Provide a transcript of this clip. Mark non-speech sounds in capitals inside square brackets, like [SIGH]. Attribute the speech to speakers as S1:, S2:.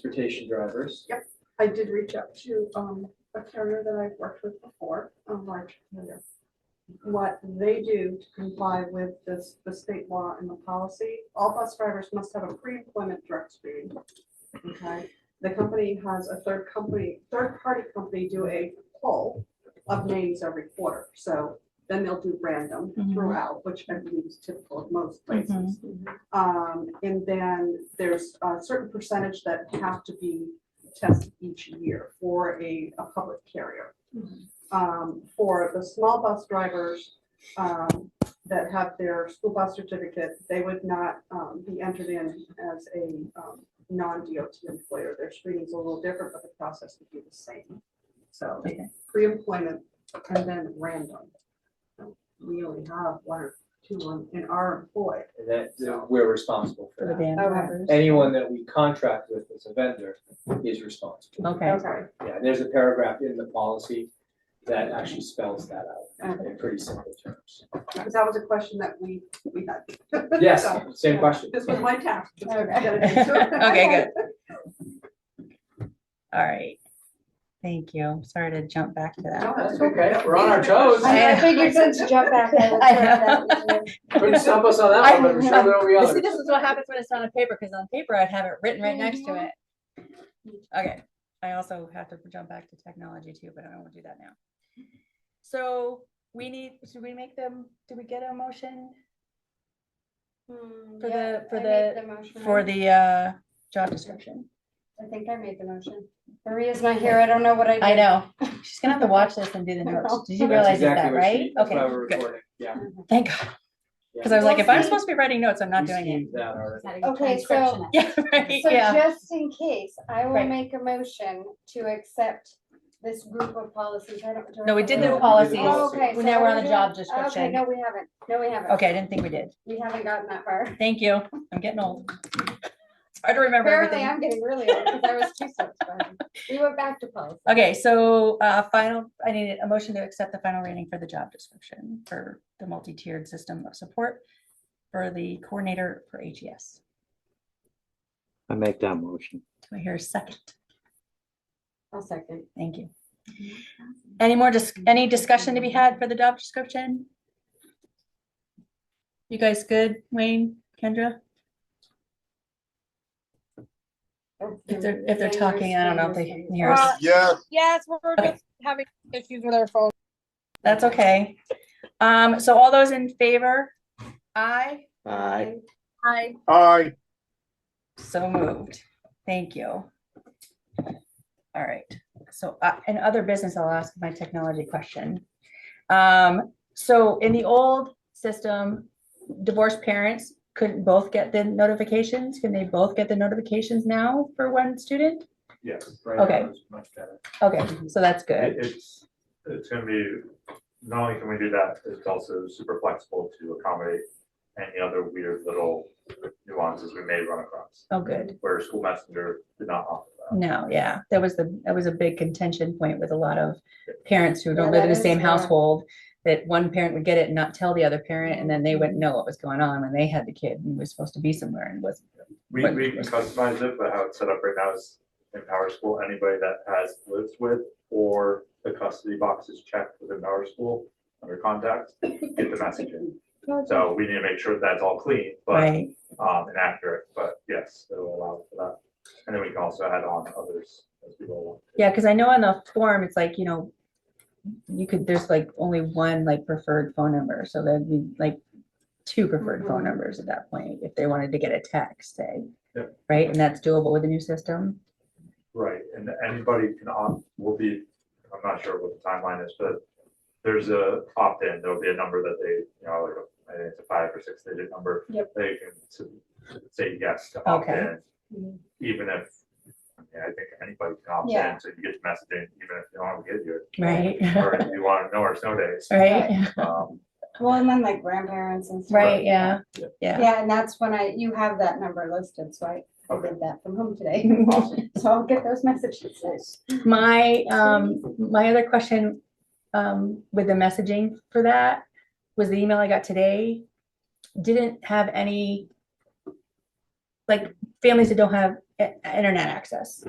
S1: transportation drivers.
S2: I did reach out to um a carrier that I've worked with before, a large carrier. What they do to comply with this, the state law and the policy, all bus drivers must have a pre-employment drug screening. Okay, the company has a third company, third-party company do a poll of names every quarter, so then they'll do random
S3: Mhm.
S2: throughout, which I believe is typical of most places. Um, and then there's a certain percentage that have to be test each year for a, a public carrier. Um, for the small bus drivers, um, that have their school bus certificate, they would not, um, be entered in as a, um, non-DOT employer. Their screening's a little different, but the process would be the same. So
S3: Okay.
S2: pre-employment and then random. We only have one or two on- in our employ.
S1: And that, that we're responsible for
S3: For the
S1: that.
S3: van
S2: Okay.
S3: drivers.
S1: Anyone that we contract with as a vendor is responsible.
S3: Okay,
S1: Yeah, there's a paragraph in the policy that actually spells that out in pretty simple terms.
S2: Because Uh, that was a question that we, we had.
S1: Yes,
S2: [LAUGHS] So,
S1: same
S2: yeah,
S1: question.
S2: This was my task. to
S3: Okay.
S2: get it
S3: [LAUGHS]
S2: answered.
S3: Okay, good. [LAUGHS] all right. Thank you. Sorry to jump back to
S2: No,
S3: that.
S1: That's okay, we're on our toes.
S3: [LAUGHS]
S4: I
S2: [LAUGHS]
S4: I figured since you jumped back, I would
S3: I
S4: throw that in.
S1: Couldn't stop us on that one, but I'm sure there'll be
S3: But See,
S1: others.
S3: this is what happens when it's not on paper, because on paper I'd have it written right next to
S1: Mhm.
S3: it. Okay, I also have to jump back to technology too, but I don't want to do that now. So we need, should we make them, do we get a motion
S4: Hmm,
S3: For
S4: yeah,
S3: the- for
S4: I made
S3: the-
S4: motion.
S3: for the uh job description?
S4: I think I made the motion. Maria's not here. I don't know what I did.
S3: I know, she's gonna have to watch this
S1: [LAUGHS]
S3: and do the notes. Did you
S1: That's
S3: realize
S1: exactly
S3: that,
S1: what she-
S3: right?
S1: that's
S3: Okay,
S1: why we're
S3: good,
S1: recording, yeah.
S3: thank God,
S1: yeah.
S3: because I was like, if I'm
S4: We'll
S3: supposed to be writing notes, I'm not
S1: We
S3: doing it.
S1: schemed
S3: [LAUGHS]
S1: that already.
S4: Okay, so-
S3: Yeah, right,
S4: So
S3: yeah.
S4: just in case, I will
S3: Right.
S4: make a motion to accept this group of policies. I don't. do I
S3: No, we
S4: have
S3: did
S4: to-
S1: No,
S3: the
S1: we did
S3: policies.
S4: Oh,
S1: policy.
S4: Okay.
S3: Well,
S4: so
S3: now we're
S4: are
S3: on the
S4: we doing-
S3: job
S4: Okay,
S3: description.
S4: no, we haven't. No, we haven't.
S3: Okay, I didn't think we did.
S4: We haven't gotten that far.
S3: Thank you. I'm getting old. It's hard to remember
S4: Apparently,
S3: everything.
S4: I'm getting really old because I was
S3: [LAUGHS]
S4: two steps behind. We went back to policy.
S3: Okay, so uh, final, I need a motion to accept the final reading for the job description for the multi-tiered system of support for the coordinator for E HES.
S5: I make that motion.
S3: Do I hear a second?
S4: I'll second.
S3: Thank you. Any more, dis- any discussion to be had for the job description? You guys good? Wayne, Kendra? If they're, if they're talking, I don't know if they can hear us.
S6: Yes,
S7: Uh, Yes, we're
S3: Okay.
S7: just having issues with our phone.
S3: That's okay. Um, so all those in favor? Aye.
S5: Aye.
S7: Hi.
S6: aye,
S3: So moved. Thank you. All right, so, uh, in other business, I'll ask my technology question. Um, so in the old system, divorced parents couldn't both get the notifications? Can they both get the notifications now for one student?
S8: Yes, right now
S3: Okay.
S8: it's much better.
S3: Okay, so that's good.
S8: It- It's, it's gonna be, not only can we do that, it's also super flexible to accommodate any other weird little nuances we may run across,
S3: Oh, good.
S8: where school messenger did not offer that.
S3: No, yeah, that was the, that was a big contention point with a lot of parents who don't
S4: Yeah,
S3: live in the
S4: that is
S3: same
S4: bad.
S3: household. That one parent would get it and not tell the other parent, and then they wouldn't know what was going on when they had the kid and was supposed to be somewhere and was.
S8: We,
S3: But-
S8: we can customize it, but how it's set up right now is in Power School, anybody that has lives with or the custody box is checked within Power School under contacts, get the message in. So we need to make sure that's all clean, but
S3: Right,
S8: um, and accurate, but yes, it'll allow for that. And then we can also add on others as we go along.
S3: yeah, because I know on the form, it's like, you know. You could, there's like only one like preferred phone number, so that'd be like two preferred phone
S2: Mhm.
S4: Mm-hmm.
S3: numbers at that point, if they wanted to get a text, say.
S8: Yep.
S3: Right, and that's doable with the new system,
S8: Right, and anybody can opt, will be, I'm not sure what the timeline is, but there's a opt-in, there'll be a number that they, you know, like, a- I think it's a five or six digit number.
S4: Yep.
S8: They can s- say yes to opt-in,
S4: Mhm.
S8: even if, I mean, I think anybody can opt
S4: Yeah.
S8: in, so you get the messaging, even if you don't want to get your.
S3: right?
S8: Or if you want to know our snow days.
S3: [LAUGHS] Right,
S8: Um,
S4: Well, and then like grandparents and stuff.
S3: right, yeah,
S8: Yeah.
S3: yeah.
S4: Yeah, and that's when I, you have that number listed, so I, I
S8: Okay.
S4: did that from home today. [LAUGHS] So I'll get those messages.
S3: My, um, my other question, um, with the messaging for that was the email I got today. Didn't have any, like, families that don't have i- internet access.